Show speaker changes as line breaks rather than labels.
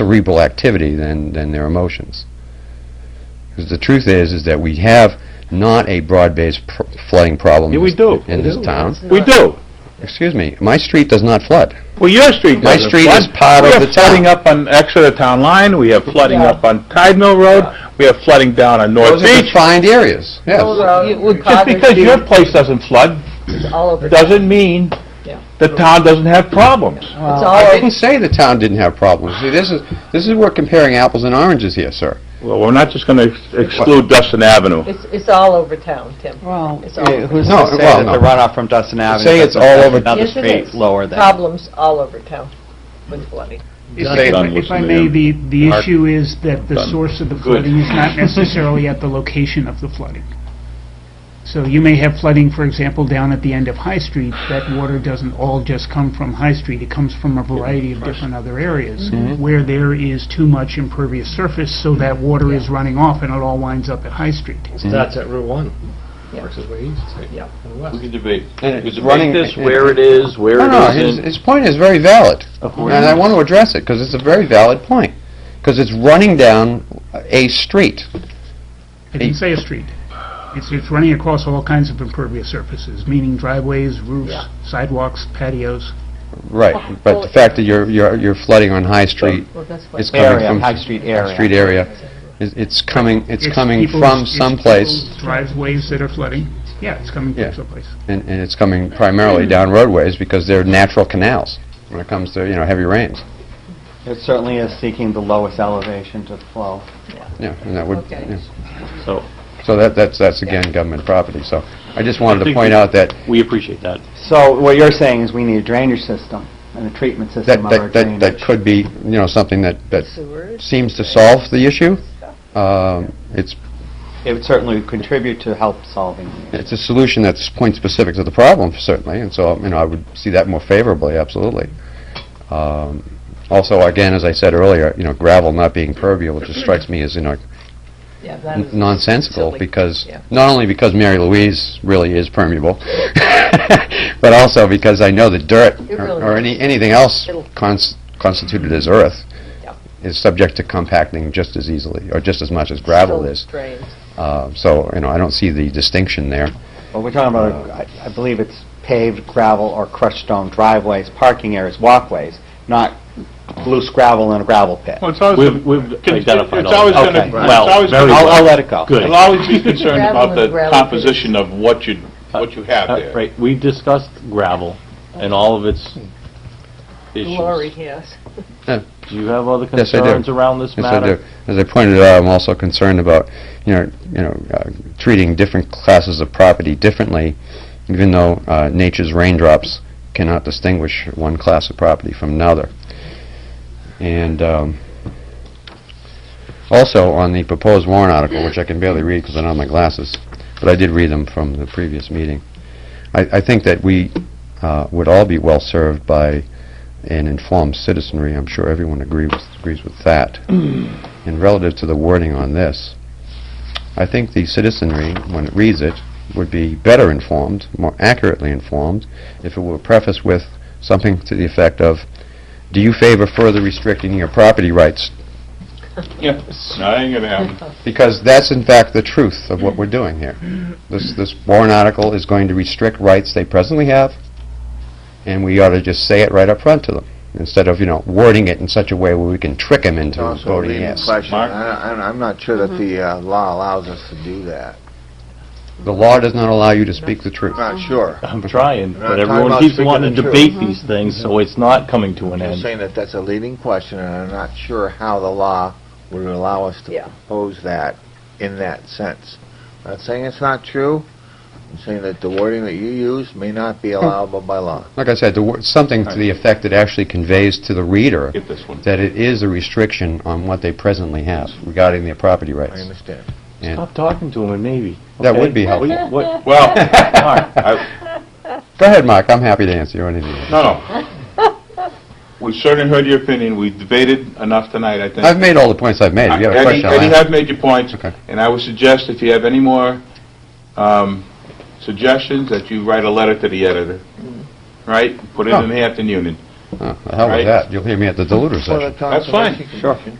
cerebral activity than, than their emotions. Because the truth is, is that we have not a broad-based pr- flooding problem
Yeah, we
in
do.
this- in this town.
We do.
Excuse me, my street does not flood.
Well, your street
My
doesn't
street
flood.
is part of the
We have flooding
town.
up on Exeter Town Line, we have flooding up on Tide Mill Road, we have flooding down on North
Those are
Beach.
defined areas, yes.
Just because your place doesn't flood,
all over.
doesn't mean
Yeah.
the town doesn't have problems.
It's
I
all
didn't say the town didn't have problems. See, this is, this is, we're comparing apples and oranges here, sir.
Well, we're not just gonna ex- exclude Dustin Avenue.
it's, it's all over town, Tim.
Well,
It's all-
eh, who's
No,
to say
well,
that the
no.
runoff from Dustin Avenue
say it's
doesn't
all
affect
over-
another
Yes, it
street
is.
lower than?
Problems all over town with flooding.
If
Done,
I-
done,
if I
listen to
may,
him.
the, the
Mark.
issue is that the
Done.
source of the
Good.
flooding is not necessarily at the location of the flooding. So you may have flooding, for example, down at the end of High Street. That water doesn't all just come from High Street. It comes from a variety of different other areas
Mm-hmm.
where there is too much impervious surface, so that water is running off and it all winds up at High Street.
That's at Route 1,
Yeah.
works its way east,
Yeah.
and west.
We can debate.
And
We
it's
can
running-
debate this, where it is, where
No, no,
it
his,
isn't.
his point is very valid, and I want to address it, because it's a very valid point. Because it's running down a street.
I didn't say a street. It's, it's running across all kinds of impervious surfaces, meaning driveways, roofs, sidewalks, patios.
Right, but the fact that you're, you're you're flooding on High Street,
Well, that's what.
it's coming
Area,
from...
High Street area.
Street area, is- it's coming, it's coming
people's-
from
it's
someplace,
people's Driveways that are flooding. Yeah, it's coming
Yeah.
from someplace.
and, and it's coming primarily down roadways, because they're natural canals, when it comes to, you know, heavy rains.
It certainly is seeking the lowest elevation to flow.
Yeah, and that would,
Okay.
yeah.
So
So that, that's, that's again government property, so I just wanted to
think
point
we-
out that,
we appreciate that.
So what you're saying is we need a drainage system and a treatment
that,
system of our
that, that-
drainage.
that could be, you know, something that, that
Sewers.
seems to solve the issue. Um, It's,
It would certainly contribute to help solving. it.
it's a solution that's point specific to the problem certainly, and so, you know, I would see that more favorably, absolutely. Um, Also, again, as I said earlier, you know, gravel not being permeable just strikes me as, you know,
Yeah, that is
nonsensical
silly.
because,
Yeah.
not only because Mary Louise really is permeable, but also because I know that dirt
It
or
really
or
is.
any, anything else
It'll-
cons- constituted as earth
Yeah.
is subject to compacting just as easily or just as much as gravel
Still
is.
Drains.
Uh, So, you know, I don't see the distinction there.
But we're talking about, I I believe it's paved gravel or crushed stone driveways, parking areas, walkways, not loose gravel in a gravel pit.
Well, it's always
We've-
gonna-
we've
con-
identified
It's
all
always
that.
gonna,
Okay.
it's
Well,
always
very
gonna...
I'll, I'll let it go.
Good.
I'll always be concerned about
Gravel
the
is relative.
composition of what you, what you have
Uh,
there.
Right, we've discussed gravel and all of its issues.
Glory, yes.
Do you have other
Yes, I do.
concerns around this
Yes, I
matter?
do. As I pointed out, I'm also concerned about, you know, you know, uh, treating different classes of property differently, even though uh, nature's raindrops cannot distinguish one class of property from another. And um, also on the proposed warrant article, which I can barely read because I don't have my glasses, but I did read them from the previous meeting. I, I think that we uh, would all be well served by an informed citizenry. I'm sure everyone agrees agrees with that. And relative to the wording on this, I think the citizenry, when it reads it, would be better informed, more accurately informed, if it were prefaced with something to the effect of, "Do you favor further restricting your property rights?"
No, that ain't gonna happen.
Because that's in fact the truth of what we're doing here. This this warrant article is going to restrict rights they presently have, and we ought to just say it right up front to them, instead of, you know, wording it in such a way where we can trick them into
Also,
voting
leading
yes.
question.
Mark?
I- I- I'm not sure that the uh, law allows us to do that.
The law does not allow you to speak the truth.
Not sure.
I'm trying,
We're
but
not talking
everyone
about
keeps
speaking
wanting to
the truth.
debate these things, so it's not coming to an
I'm
end.
saying that that's a leading question, and I'm not sure how the law would allow us to
Yeah.
propose that in that sense. I'm not saying it's not true. I'm saying that the wording that you use may not be allowable by law.
Like I said, the wor- something to the effect that actually conveys to the reader
Get this one.
that it is a restriction on what they presently have regarding their property
I
rights.
understand.
And
Stop talking to him, maybe.
That
okay?
would be
What-
helpful.
what-
Well,
Mark,
I-
Go ahead, Mark, I'm happy to answer you anything.
no, no. We certainly heard your opinion. We debated enough tonight, I think.
I've made all the points I've made. If you have a
Eddie,
question, I'll
Eddie,
answer.
I've made your points,
Okay.
and I would suggest if you have any more um, suggestions, that you write a letter to the editor, right? Put it in the Hampton Union.
Oh, the hell
Right.
with that. You'll hear me at the deluder
For the
session.
That's fine.
Conservation Commission.